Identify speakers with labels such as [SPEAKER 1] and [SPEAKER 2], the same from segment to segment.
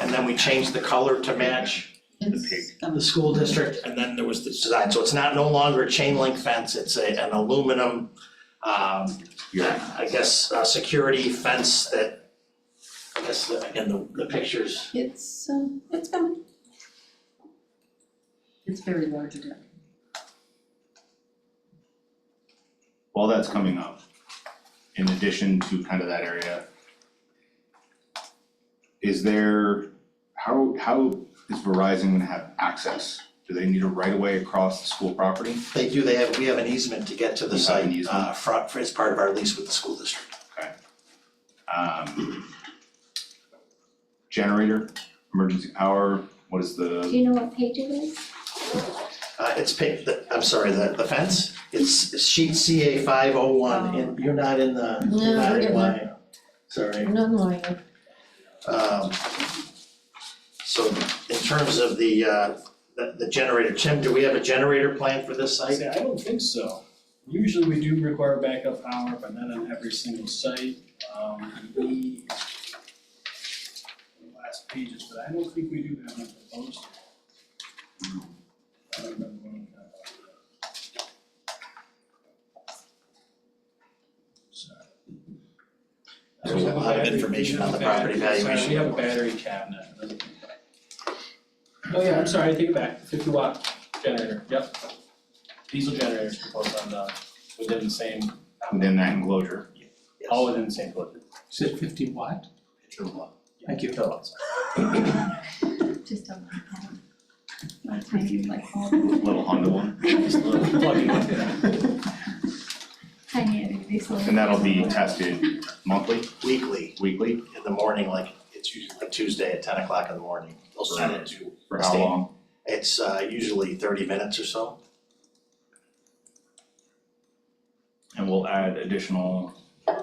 [SPEAKER 1] and then we changed the color to match,
[SPEAKER 2] It's-
[SPEAKER 3] And the school district,
[SPEAKER 1] and then there was the design, so it's not no longer a chain link fence, it's a an aluminum um
[SPEAKER 4] Yeah,
[SPEAKER 1] I guess uh security fence that I guess the- again, the the pictures,
[SPEAKER 2] It's, um, it's been. It's very large again.
[SPEAKER 4] all that's coming up. In addition to kind of that area. Is there, how, how is Verizon gonna have access? Do they need a right of way across the school property?
[SPEAKER 1] they do, they have, we have an easement to get to the
[SPEAKER 4] You have an
[SPEAKER 1] site
[SPEAKER 4] easement?
[SPEAKER 1] uh front, as part of our lease with the school district.
[SPEAKER 4] Um. Generator, emergency power, what is
[SPEAKER 5] Do
[SPEAKER 4] the,
[SPEAKER 5] you know what page it is?
[SPEAKER 1] Uh it's pic, the, I'm sorry, the the fence, it's sheet CA five oh one, and you're not in the,
[SPEAKER 2] No,
[SPEAKER 1] you're not
[SPEAKER 2] we're
[SPEAKER 1] in
[SPEAKER 2] in
[SPEAKER 1] line. Sorry.
[SPEAKER 2] No, no, I,
[SPEAKER 1] Um, So in terms of the, uh, the the generator, Tim, do we have a generator plan for this
[SPEAKER 6] I
[SPEAKER 1] site?
[SPEAKER 6] say, I don't think so. Usually we do require backup power, but not on every single site. Um, we. the Last pages, but I don't think we do have one proposed. I don't remember when we got that. Sorry.
[SPEAKER 1] There's a lot of information on the property
[SPEAKER 6] Sorry, we
[SPEAKER 1] valuation.
[SPEAKER 6] have a battery cabinet. it doesn't- Oh yeah, I'm sorry, I take it back, fifty watt generator, yep. Diesel generators proposed on the, within the same,
[SPEAKER 4] within that enclosure?
[SPEAKER 6] all within the same footprint.
[SPEAKER 3] is it fifty watt? Thank you.
[SPEAKER 5] Just a little tiny, like, all
[SPEAKER 4] Little Honda one,
[SPEAKER 6] Plugging in.
[SPEAKER 5] tiny, and these little-
[SPEAKER 4] and that'll be tested monthly,
[SPEAKER 1] Weekly,
[SPEAKER 4] weekly,
[SPEAKER 1] in the morning, like, it's usually like Tuesday at ten o'clock in the morning. They'll send it to-
[SPEAKER 4] for how long?
[SPEAKER 1] It's uh, usually thirty minutes or so.
[SPEAKER 4] And we'll add additional kind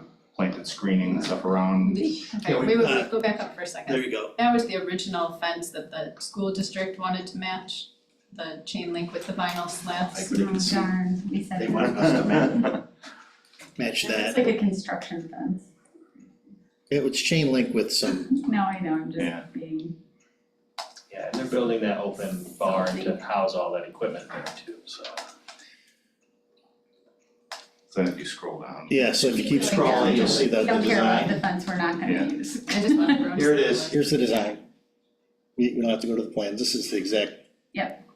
[SPEAKER 4] of planted screening and stuff around
[SPEAKER 7] Okay,
[SPEAKER 1] Yeah, we-
[SPEAKER 7] wait, wait,
[SPEAKER 1] uh,
[SPEAKER 7] wait, go back up for a second.
[SPEAKER 1] There you go.
[SPEAKER 7] That was the original fence that the school district wanted to match, the chain link with the vinyl slats.
[SPEAKER 5] Oh, darn, we said
[SPEAKER 1] They
[SPEAKER 5] that.
[SPEAKER 1] wanted us to ma- match
[SPEAKER 5] It's
[SPEAKER 1] that.
[SPEAKER 5] like a construction fence.
[SPEAKER 1] It was chain link with some,
[SPEAKER 5] No, I know, I'm
[SPEAKER 4] Yeah.
[SPEAKER 5] just being,
[SPEAKER 6] Yeah, and they're building that open barn to house all that equipment there too, so.
[SPEAKER 4] So if you scroll down.
[SPEAKER 8] Yeah, so if you keep scrolling, you'll see the
[SPEAKER 5] we
[SPEAKER 8] the
[SPEAKER 5] don't care about
[SPEAKER 8] design.
[SPEAKER 5] the fence we're not
[SPEAKER 4] Yeah.
[SPEAKER 5] gonna use.
[SPEAKER 7] I just want to.
[SPEAKER 1] Here it is.
[SPEAKER 8] Here's the design. We, we don't have to go to the plans, this is the exact.
[SPEAKER 5] Yep.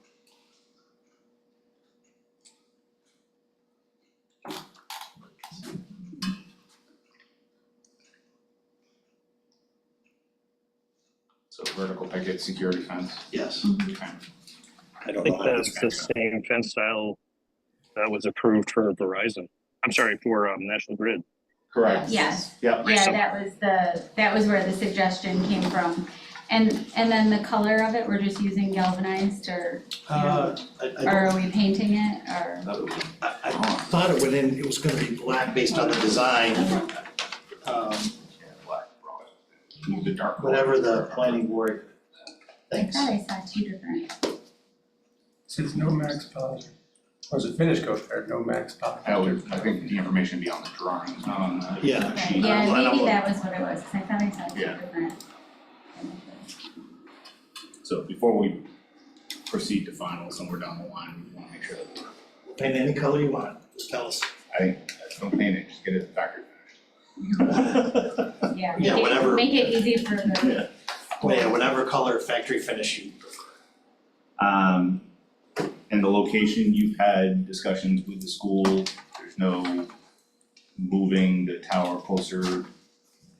[SPEAKER 4] So vertical picket, security fence.
[SPEAKER 1] yes.
[SPEAKER 4] Okay.
[SPEAKER 8] I don't
[SPEAKER 9] I
[SPEAKER 8] know
[SPEAKER 9] think
[SPEAKER 8] how to
[SPEAKER 9] that's the
[SPEAKER 8] describe it.
[SPEAKER 9] same fence style that was approved for Verizon. I'm sorry, for um, National Grid.
[SPEAKER 4] Correct.
[SPEAKER 5] Yes,
[SPEAKER 4] Yep.
[SPEAKER 5] yeah, that was the, that was where the suggestion came from. And, and then the color of it, we're just using galvanized or,
[SPEAKER 1] Uh, I, I,
[SPEAKER 5] or are we painting it or?
[SPEAKER 1] I I thought it would in, it was gonna be black based on the design. Um,
[SPEAKER 4] The dark. color.
[SPEAKER 1] Whatever the planning board
[SPEAKER 5] I
[SPEAKER 1] thinks.
[SPEAKER 5] thought I saw two different.
[SPEAKER 10] Says no max power. Or is it finished coach there, no max power?
[SPEAKER 4] That would, I think the information would be on the drawings, not on the.
[SPEAKER 8] Yeah.
[SPEAKER 5] Okay,
[SPEAKER 4] sheet.
[SPEAKER 1] Uh, well,
[SPEAKER 5] yeah,
[SPEAKER 1] I'm-
[SPEAKER 5] maybe that was what it was, 'cause I thought I saw two
[SPEAKER 4] Yeah.
[SPEAKER 5] different.
[SPEAKER 4] So before we proceed to final, somewhere down the line, we want to make sure that,
[SPEAKER 1] Paint any color you want, just tell us.
[SPEAKER 4] I, don't paint it, just get it factored.
[SPEAKER 5] Yeah,
[SPEAKER 1] Yeah,
[SPEAKER 5] make
[SPEAKER 1] whatever.
[SPEAKER 5] it, make it easy for the
[SPEAKER 1] Yeah, whatever color factory finish you prefer.
[SPEAKER 4] Um, and the location, you've had discussions with the school, there's no moving the tower closer to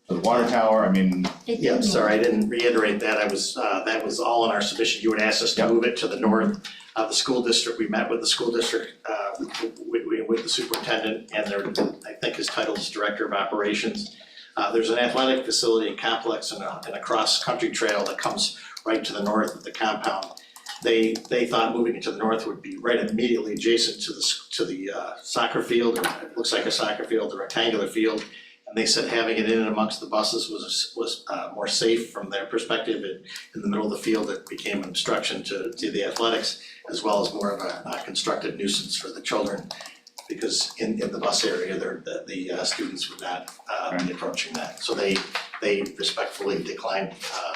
[SPEAKER 4] the water tower, I mean,
[SPEAKER 5] It
[SPEAKER 1] Yeah, I'm
[SPEAKER 5] didn't
[SPEAKER 1] sorry, I didn't reiterate that, I was, uh, that was all in our submission, you had asked us to move it to the north of the school district, we met with the school district, uh, with, with- with the superintendent and their, I think his title is Director of Operations. Uh, there's an athletic facility and complex and a, and a cross-country trail that comes right to the north of the compound. They, they thought moving it to the north would be right immediately adjacent to the, s- to the uh, soccer field, or it looks like a soccer field, a rectangular field. And they said having it in and amongst the buses was, was uh, more safe from their perspective. It- In the middle of the field, it became an obstruction to, to the athletics, as well as more of a uh, constructive nuisance for the children. Because in, in the bus area, there, the, the uh, students would not uh, be approaching that. So they, they respectfully declined uh,